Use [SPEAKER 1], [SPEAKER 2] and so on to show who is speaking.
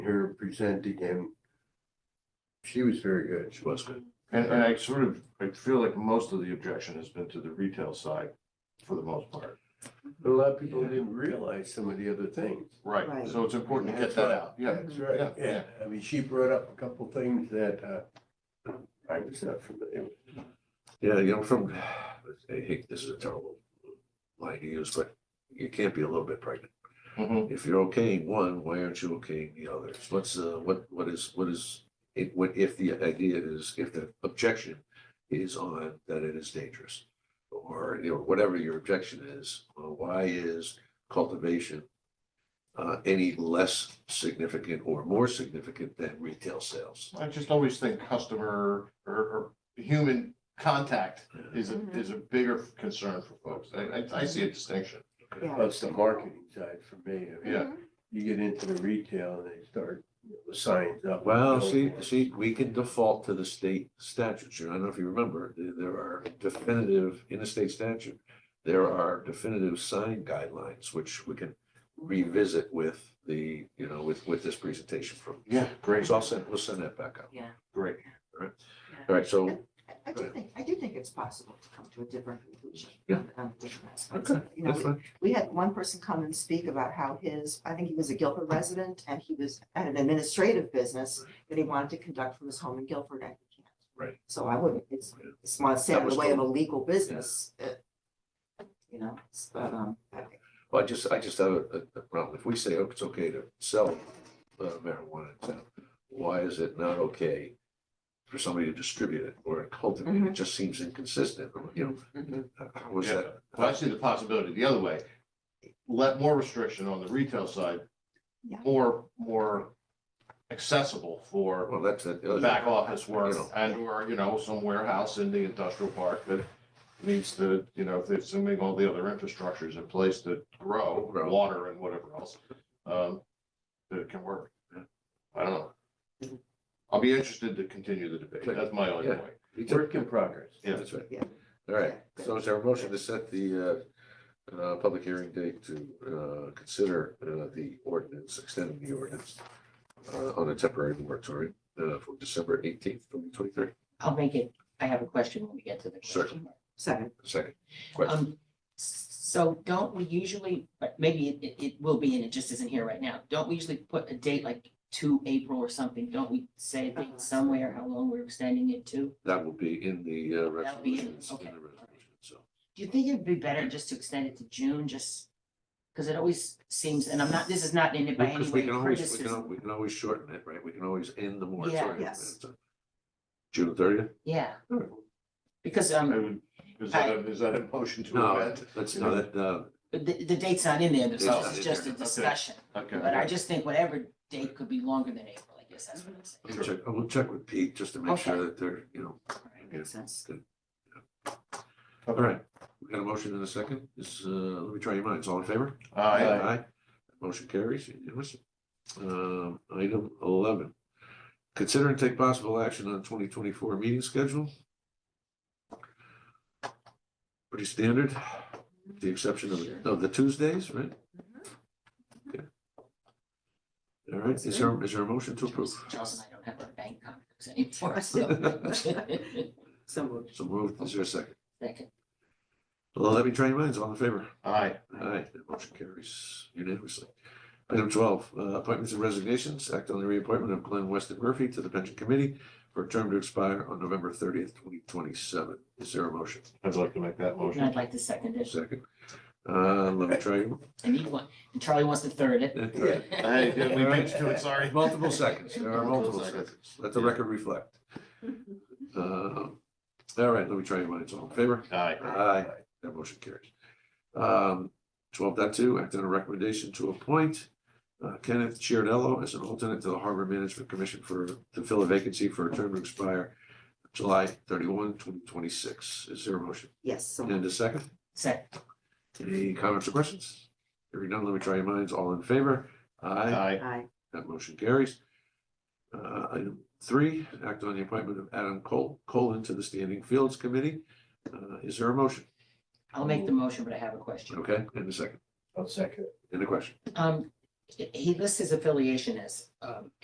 [SPEAKER 1] presented him. She was very good.
[SPEAKER 2] She was good. And, and I sort of, I feel like most of the objection has been to the retail side for the most part.
[SPEAKER 1] But a lot of people didn't realize some of the other things.
[SPEAKER 2] Right,
[SPEAKER 3] Right.
[SPEAKER 2] so it's important to get that out, yeah.
[SPEAKER 4] Mhm.
[SPEAKER 1] That's right,
[SPEAKER 2] Yeah,
[SPEAKER 1] yeah. I mean, she brought up a couple things that, uh, I was not familiar with.
[SPEAKER 4] Yeah, you know, from, I hate, this is a terrible line to use, but you can't be a little bit pregnant.
[SPEAKER 2] Mhm.
[SPEAKER 4] If you're okaying one, why aren't you okaying the others? What's, uh, what, what is, what is, it, what, if the idea is, if the objection is on that it is dangerous? Or, you know, whatever your objection is, uh, why is cultivation uh, any less significant or more significant than retail sales?
[SPEAKER 2] Mm-hmm. I just always think customer or, or human contact is a,
[SPEAKER 3] Mm-hmm.
[SPEAKER 2] is a bigger concern for folks. I, I, I see a distinction.
[SPEAKER 3] Yeah.
[SPEAKER 1] That's the marketing side for me. I mean,
[SPEAKER 2] Yeah.
[SPEAKER 1] You get into the retail and they start, you know, the signs up.
[SPEAKER 4] Well,
[SPEAKER 1] and
[SPEAKER 4] see,
[SPEAKER 1] billboards.
[SPEAKER 4] see, we can default to the state statutes. You know, I don't know if you remember, there, there are definitive, in the state statute, there are definitive sign guidelines, which we can revisit with the, you know, with, with this presentation from.
[SPEAKER 2] Yeah, great,
[SPEAKER 4] So I'll send, we'll send that back out.
[SPEAKER 2] great.
[SPEAKER 4] All right, so,
[SPEAKER 3] I- I do think, I do think it's possible to come to a different conclusion.
[SPEAKER 4] Yeah.
[SPEAKER 3] on- on different aspects.
[SPEAKER 4] okay,
[SPEAKER 3] You know,
[SPEAKER 4] that's fine.
[SPEAKER 3] we had one person come and speak about how his, I think he was a Guilford resident and he was at an administrative business that he wanted to conduct from his home in Guilford and he can't.
[SPEAKER 4] Right.
[SPEAKER 3] So I wouldn't, it's, it's not say
[SPEAKER 4] That
[SPEAKER 3] in the
[SPEAKER 4] was
[SPEAKER 3] way of a
[SPEAKER 4] the-
[SPEAKER 3] legal business. uh, You know, it's- but, um, I-
[SPEAKER 4] Well, I just, I just have a, a- a problem. If we say, oh, it's okay to sell uh, marijuana in town, why is it not okay for somebody to distribute it or cultivate? It
[SPEAKER 3] Mhm.
[SPEAKER 4] just seems inconsistent, you know,
[SPEAKER 3] mhm.
[SPEAKER 4] how is
[SPEAKER 2] Yeah.
[SPEAKER 4] that?
[SPEAKER 2] Well, I see the possibility the other way. Let more restriction on the retail side.
[SPEAKER 3] Yeah.
[SPEAKER 2] More, more accessible for
[SPEAKER 4] Well, that's it.
[SPEAKER 2] back office work
[SPEAKER 4] You know.
[SPEAKER 2] and or, you know, some warehouse in the industrial park that needs to, you know, if they're assuming all the other infrastructures in place to grow,
[SPEAKER 4] Grow.
[SPEAKER 2] water and whatever else. um, That it can work.
[SPEAKER 4] Yeah.
[SPEAKER 2] I don't know. I'll be interested to continue the debate. That's my only
[SPEAKER 4] Yeah.
[SPEAKER 2] point.
[SPEAKER 1] Work in progress.
[SPEAKER 2] Yeah.
[SPEAKER 4] That's right.
[SPEAKER 3] Yeah.
[SPEAKER 4] All right,
[SPEAKER 3] Yeah.
[SPEAKER 4] so is there a motion to set the uh, uh, public hearing date to uh, consider uh, the ordinance, extending the ordinance uh, on a temporary moratorium uh, for December eighteenth, twenty twenty-three?
[SPEAKER 5] I'll make it, I have a question when we get to the
[SPEAKER 4] Sure.
[SPEAKER 5] question.
[SPEAKER 3] Second,
[SPEAKER 4] Second question.
[SPEAKER 5] Um, so don't we usually, but maybe it, it, it will be, and it just isn't here right now. Don't we usually put a date like to April or something? Don't we say a date somewhere how long we're extending it to?
[SPEAKER 4] That will be in the uh,
[SPEAKER 5] That'll be in-
[SPEAKER 4] resolutions. in
[SPEAKER 5] okay.
[SPEAKER 4] the resolution, So,
[SPEAKER 5] Do you think it'd be better just to extend it to June, just? Because it always seems, and I'm not, this is not in it by any
[SPEAKER 4] because we
[SPEAKER 5] way
[SPEAKER 4] can always, we can,
[SPEAKER 5] criticism.
[SPEAKER 4] we can always shorten it, right? We can always end the moratorium.
[SPEAKER 3] yes.
[SPEAKER 4] So, June thirtieth?
[SPEAKER 5] Yeah,
[SPEAKER 4] Sure.
[SPEAKER 5] because,
[SPEAKER 2] I
[SPEAKER 5] um,
[SPEAKER 2] would- Is that, a- is that a motion to
[SPEAKER 4] No,
[SPEAKER 2] amend?
[SPEAKER 4] that's not, it, uh,
[SPEAKER 5] the, the date's not in there,
[SPEAKER 4] It's
[SPEAKER 5] so
[SPEAKER 4] not
[SPEAKER 5] it's
[SPEAKER 4] in
[SPEAKER 5] just a
[SPEAKER 4] there,
[SPEAKER 2] okay.
[SPEAKER 5] discussion.
[SPEAKER 2] Okay.
[SPEAKER 5] But I just think whatever date could be longer than April, I guess that's what I'm saying.
[SPEAKER 4] I'll check, I will check with Pete just to make sure
[SPEAKER 5] Okay.
[SPEAKER 4] that they're, you know,
[SPEAKER 3] makes sense.
[SPEAKER 4] all right. We got a motion in a second. This, uh, let me try your minds. All in favor?
[SPEAKER 2] Aye.
[SPEAKER 4] Motion carries. Unanimous. Um, item eleven. Consider and take possible action on twenty twenty-four meeting schedule. Pretty standard, with the exception of, of the Tuesdays, right? Okay. All right, is there, is there a motion to approve?
[SPEAKER 5] Charles and I don't have our bank contracts anymore, so.
[SPEAKER 3] So moved.
[SPEAKER 4] So moved. Is there a second?
[SPEAKER 5] Second.
[SPEAKER 4] Well, let me try your minds. All in favor?
[SPEAKER 2] Aye.
[SPEAKER 4] Aye, that motion carries unanimously. Item twelve, uh, appointments and resignations. Act on the reappointment of Glenn Weston Murphy to the pension committee for a term to expire on November thirtieth, twenty twenty-seven. Is there a motion?
[SPEAKER 2] I'd like to make that
[SPEAKER 5] And
[SPEAKER 2] motion.
[SPEAKER 5] I'd like to second it.
[SPEAKER 4] Second. Uh, let me try. you.
[SPEAKER 5] And he wa- and Charlie wants to third it.
[SPEAKER 4] Uh,
[SPEAKER 2] Hey, yeah, we beat you to it, sorry.
[SPEAKER 4] Multiple seconds. There are multiple
[SPEAKER 2] Multiple seconds.
[SPEAKER 4] seconds. Let the record reflect. Uh, all right, let me try your minds. All in favor?
[SPEAKER 2] Aye.
[SPEAKER 4] Aye, that motion carries. Um, twelve dot two, act on a recommendation to appoint uh, Kenneth Chiarello as an alternate to the Harbor Management Commission for, to fill a vacancy for a term to expire July 31, 2026. Is there a motion?
[SPEAKER 3] Yes, so moved.
[SPEAKER 4] And a second?
[SPEAKER 5] Second.
[SPEAKER 4] Any comments or questions? Hearing none, let me try your minds. All in favor? Aye,
[SPEAKER 2] Aye.
[SPEAKER 3] Aye.
[SPEAKER 4] that motion carries. Uh, item three, act on the appointment of Adam Cole, Colin to the Standing Fields Committee. Uh, is there a motion?
[SPEAKER 5] I'll make the motion, but I have a question.
[SPEAKER 4] Okay, and a second,
[SPEAKER 1] I'll second.
[SPEAKER 4] and a question?
[SPEAKER 5] Um, he lists his affiliation as, um,